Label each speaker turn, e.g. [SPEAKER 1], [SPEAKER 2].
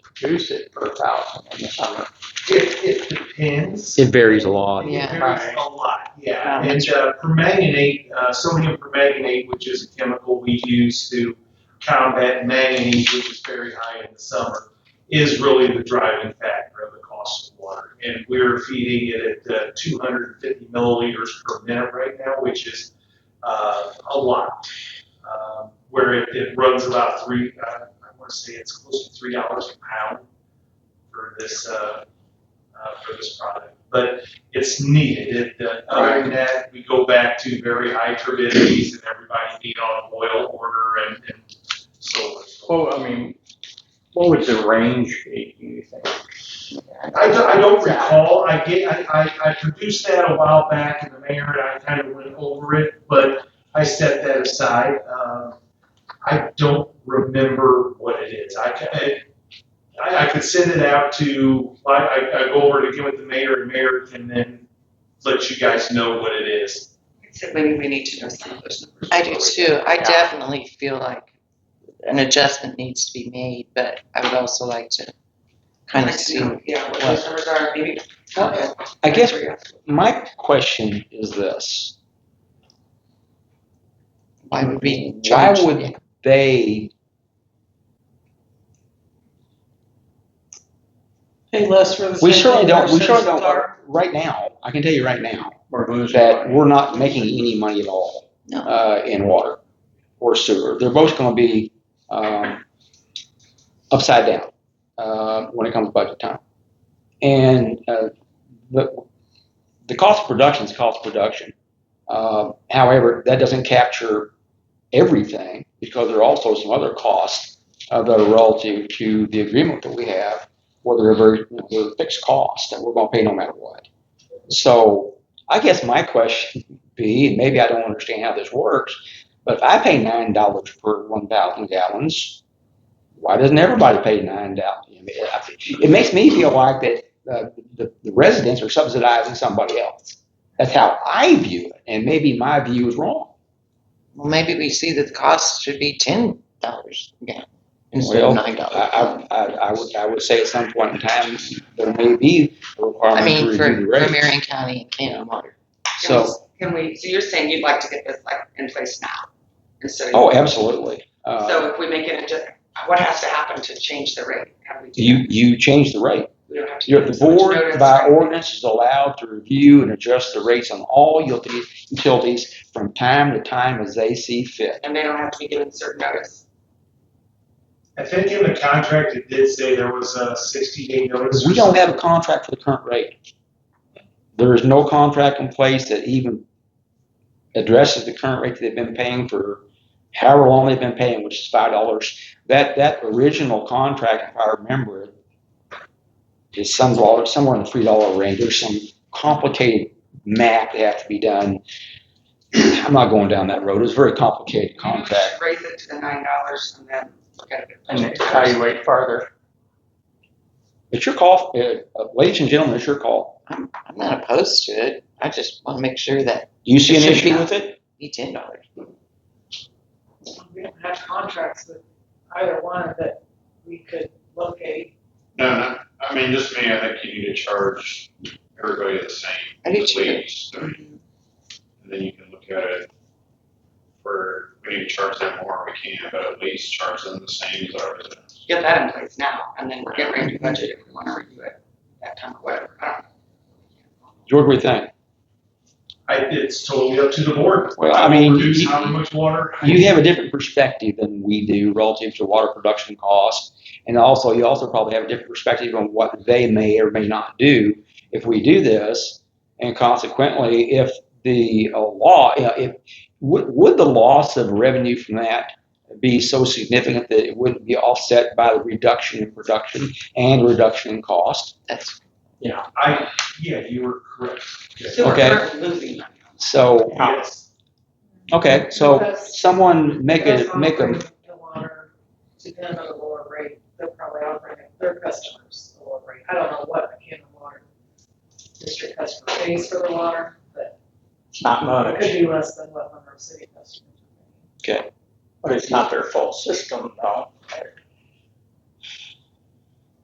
[SPEAKER 1] reduce it per thousand in the summer.
[SPEAKER 2] It, it depends.
[SPEAKER 3] It varies a lot.
[SPEAKER 2] It
[SPEAKER 1] Yeah.
[SPEAKER 2] varies a lot, yeah.
[SPEAKER 1] Yeah.
[SPEAKER 2] And uh, permanganate, uh, sodium permanganate, which is a chemical we use to combat manganese, which is very high in the summer, is really the driving factor of the cost of water. And we're feeding it at uh, 250 milliliters per minute right now, which is uh, a lot. Um, where it, it runs about three, uh, I want to say it's close to three dollars a pound for this uh, uh, for this product, but it's needed. It, uh, other than that, we go back to very high turbidities and everybody being on oil order and, and so on.
[SPEAKER 4] Well, I mean, what would the range be, do you think?
[SPEAKER 2] I don't, I don't recall, I get, I, I, I produced that a while back in the mayor and I kind of went over it, but I set that aside. Um, I don't remember what it is. I, ca- I, I could send it out to, I, I, I go over to get with the mayor and mayor can then let you guys know what it is.
[SPEAKER 5] Maybe we need to know some of those numbers.
[SPEAKER 1] I do too. I
[SPEAKER 5] Yeah.
[SPEAKER 1] definitely feel like an adjustment needs to be made, but I would also like to kind of see.
[SPEAKER 5] Yeah, what those numbers are, maybe.
[SPEAKER 1] Okay.
[SPEAKER 3] I guess my question is this.
[SPEAKER 1] Why would we
[SPEAKER 3] Why
[SPEAKER 1] charge?
[SPEAKER 3] Mm, would they
[SPEAKER 5] Pay less for the.
[SPEAKER 3] We certainly don't, we certainly don't, right now, I can tell you right now,
[SPEAKER 4] Or who's
[SPEAKER 3] that we're not making any money at all.
[SPEAKER 1] No.
[SPEAKER 3] Uh, in water or sewer. They're both gonna be, um, upside down, uh, when it comes to budget time. And, uh, the, the cost of production is cost of production. Uh, however, that doesn't capture everything because there are also some other costs uh, that are relative to the agreement that we have, where they're very, you know, they're fixed costs that we're gonna pay no matter what. So, I guess my question would be, and maybe I don't understand how this works, but if I pay nine dollars per one thousand gallons, why doesn't everybody pay nine dollars? I mean, I- it makes me feel like that uh, the, the residents are subsidizing somebody else. That's how I view it, and maybe my view is wrong.
[SPEAKER 1] Well, maybe we see that the cost should be ten dollars again instead
[SPEAKER 3] Well,
[SPEAKER 1] of nine dollars.
[SPEAKER 3] I, I, I, I would I would say at some point in time there may be a requirement
[SPEAKER 1] I mean,
[SPEAKER 3] to
[SPEAKER 1] for,
[SPEAKER 3] review the
[SPEAKER 1] for
[SPEAKER 3] rates.
[SPEAKER 1] Marion County and Cannon Water.
[SPEAKER 3] so.
[SPEAKER 5] Can we, so you're saying you'd like to get this like in place now? And so.
[SPEAKER 3] Oh, absolutely. Uh,
[SPEAKER 5] So if we make it, a di- what has to happen to change the rate? Have we do
[SPEAKER 3] you
[SPEAKER 5] that?
[SPEAKER 3] you change the rate.
[SPEAKER 5] We don't have to.
[SPEAKER 3] Your,
[SPEAKER 5] give
[SPEAKER 3] the
[SPEAKER 5] them so
[SPEAKER 3] board
[SPEAKER 5] much notice,
[SPEAKER 3] by
[SPEAKER 5] right?
[SPEAKER 3] ordinance is allowed to review and adjust the rates on all utility- utilities from time to time as they see fit.
[SPEAKER 5] And they don't have to be given certain notice.
[SPEAKER 2] I think in the contract, it did say there was a sixty day notice.
[SPEAKER 3] We don't have a contract for the current rate. There is no contract in place that even addresses the current rate that they've been paying for however long they've been paying, which is five dollars. That, that original contract, if I remember it, is some dollar, somewhere in the three dollar range. There's some complicated math that has to be done. I'm not going down that road. It's a very complicated contract.
[SPEAKER 5] Raise it to the nine dollars and then look at it.
[SPEAKER 4] And evaluate farther.
[SPEAKER 3] It's your call, uh, uh, ladies and gentlemen, it's your call.
[SPEAKER 1] I'm, I'm not opposed to it. I just want to make sure that
[SPEAKER 3] Do you see an
[SPEAKER 1] It should
[SPEAKER 3] issue
[SPEAKER 1] be not.
[SPEAKER 3] with it?
[SPEAKER 1] be ten dollars.
[SPEAKER 6] we don't have contracts with either one that we could locate.
[SPEAKER 7] No, no, I mean, just me, I think you need to charge everybody the same.
[SPEAKER 1] I do
[SPEAKER 7] at
[SPEAKER 1] too.
[SPEAKER 7] least. I mean, And then you can look at it for, we need to charge them more if we can, but at least charge them the same as our residents.
[SPEAKER 5] Get that in place now and then we're getting ready to budget if we wanna review it that time or whatever. I don't know.
[SPEAKER 3] George, what do you think?
[SPEAKER 2] I, it's totally up to the board.
[SPEAKER 3] Well, I mean,
[SPEAKER 2] Produce
[SPEAKER 3] you-
[SPEAKER 2] how much water.
[SPEAKER 3] you have a different perspective than we do relative to water production costs. And also, you also probably have a different perspective on what they may or may not do if we do this. And consequently, if the uh, law, you know, if would, would the loss of revenue from that be so significant that it wouldn't be offset by the reduction in production and reduction in cost?
[SPEAKER 1] That's
[SPEAKER 2] Yeah, I, yeah, you were correct.
[SPEAKER 5] So we're
[SPEAKER 3] Okay.
[SPEAKER 5] currently losing money.
[SPEAKER 3] So,
[SPEAKER 2] Yes.
[SPEAKER 3] okay, so
[SPEAKER 6] Because
[SPEAKER 3] someone make
[SPEAKER 6] they're
[SPEAKER 3] a make a
[SPEAKER 6] offering The water to them at a lower rate, they're probably offering it their customers at a lower rate. I don't know what a Cannon Water District customer pays for the water, but
[SPEAKER 4] It's not
[SPEAKER 6] it could
[SPEAKER 4] much,
[SPEAKER 6] be less than what Monroe City customers.
[SPEAKER 4] but it's not their full system though.